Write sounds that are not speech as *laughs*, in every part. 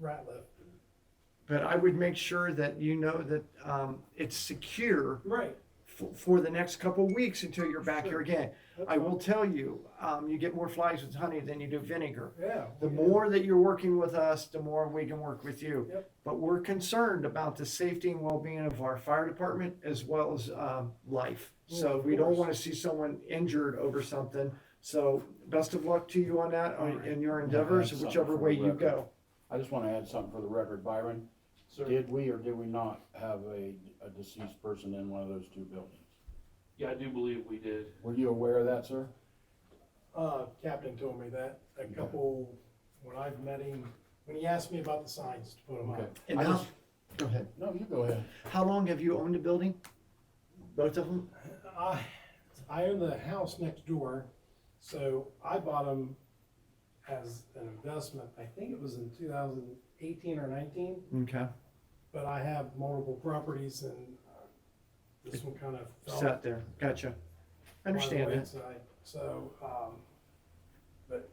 right, left. But I would make sure that you know that um, it's secure Right. for, for the next couple weeks until you're back here Sure. again. I will tell you, um, you get more flies with honey than you do vinegar. Yeah. The we do. more that you're working with us, the more we can work with you. Yep. But we're concerned about the safety and well-being of our fire department as well as um, life. Well, So of we don't course. want to see someone injured over something. So best of luck to you on that All on- right. in your I'm gonna add endeavors, something whichever for the way you record. go. I just wanna add something for the record, Byron. Sir, Did we or did we not have a, a deceased person in one of those two buildings? yeah, I do believe we did. Were you aware of that, sir? Uh, Captain told me that a couple, when I've met him, when he asked me about the signs to put them Okay. up. And I how, just- go ahead. No, you go ahead. How long have you owned the building? Both of them? I, I own the house next door, so I bought them as an investment. I think it was in two thousand eighteen or nineteen, Okay. but I have multiple properties and uh, this one kind of. fell Sat there. Gotcha. by the Understand that. wayside. So, um, but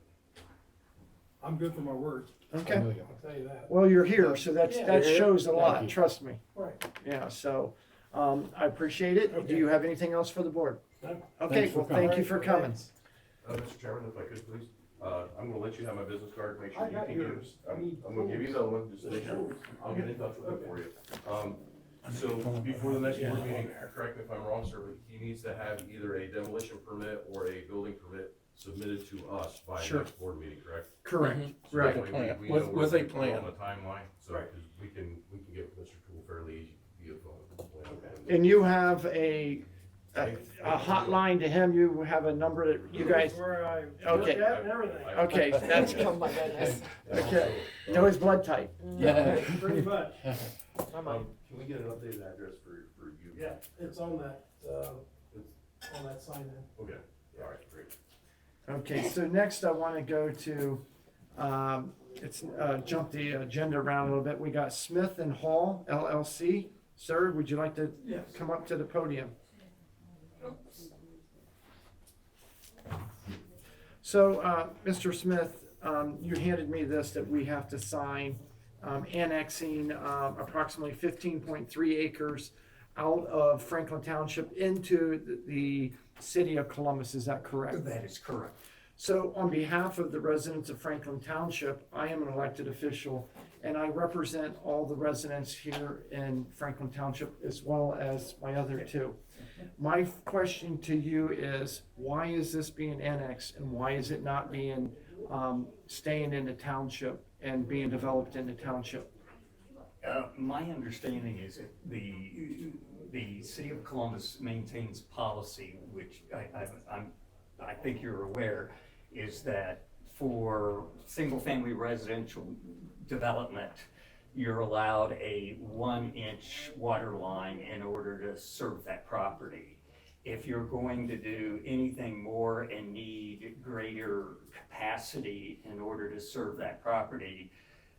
I'm good for my word, Okay. I'll tell you that. Well, you're here, so that's, Yeah. that You're here? shows a Thank lot, you. trust me. Right. Yeah, so, um, I appreciate it. Do Okay. you have anything else for the board? No. Okay, Thanks for well, thank you coming. for coming. Uh, Mr. Chairman, if I could please, uh, I'm gonna let you have my business card, make I sure you got can give, yours. I I'm, need I'm gonna give you yours. another one, just make sure, I'll get in touch with it for you. Um, so before the next board meeting, correct me if I'm wrong, sir, but he needs to have either a demolition permit or a building permit submitted to us by Sure. next board meeting, correct? Correct. So that Right. way we- we know With- where with we a can go plan. On the timeline, so, Right. 'cause we can, we can get Mr. Tool fairly easy via phone. And you have a, a a hotline to him, you have a number that you guys, Where I work Okay. at and everything, okay, *laughs* that's, *laughs* Oh my *laughs* goodness. And also, okay. uh, know his blood type. Yeah. pretty much, I might. um, Can we get an updated address for, for you? yeah, it's on that, uh, on that sign there. Okay, all right, great. Okay, so next I want to go to, um, it's, uh, jump the agenda around a little bit. We got Smith and Hall LLC. Sir, would you like to Yes. come up to the podium? So, uh, Mr. Smith, um, you handed me this that we have to sign, um, annexing, um, approximately fifteen point three acres out of Franklin Township into the- the city of Columbus. Is that correct? That is correct. So on behalf of the residents of Franklin Township, I am an elected official and I represent all the residents here in Franklin Township as well as my other two. My question to you is, why is this being annexed and why is it not being, um, staying in the township and being developed in the township? Uh, my understanding is that the, the city of Columbus maintains policy, which I, I, I'm, I think you're aware, is that for single-family residential development, you're allowed a one-inch water line in order to serve that property. if you're going to do anything more and need greater capacity in order to serve that property,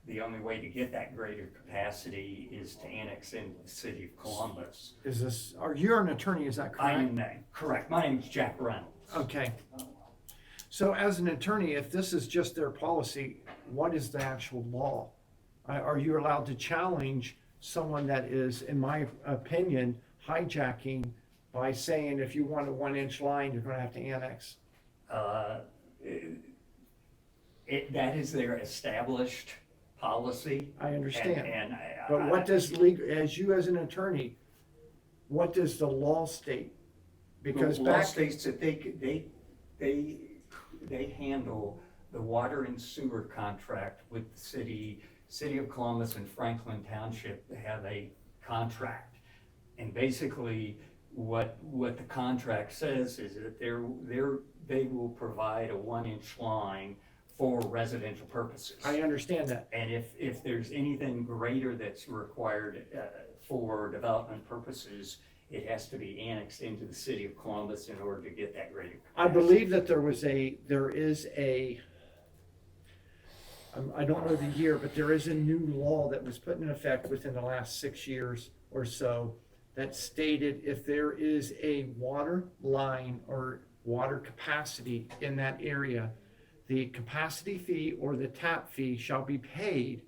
the only way to get that greater capacity is to annex into the city of Columbus. Is this, are you an attorney, is that correct? Oh. I am that, correct, my name's Jack Reynolds. Okay. So as an attorney, if this is just their policy, what is the actual law? Are- Are you allowed to challenge someone that is, in my opinion, hijacking by saying if you want a one-inch line, you're gonna have to annex? Uh, It, that is their established policy. I And, understand. and I. But I- what does legal, as you as an attorney, what does the law state? Because The law back, states that they, c- they, they, they handle the water and sewer contract with the city, City of Columbus and Franklin Township They have a contract. And basically, what, what the contract says is that they're, they're, they will provide a one-inch line for residential purposes. I understand that. And if, if there's anything greater that's required uh, for development purposes, it has to be annexed into the city of Columbus in order to get that greater. I believe that there was a, there is a, um, I don't know the year, but there is a new law that was put in effect within the last six years or so that stated if there is a water line or water capacity in that area, the capacity fee or the tap fee shall be paid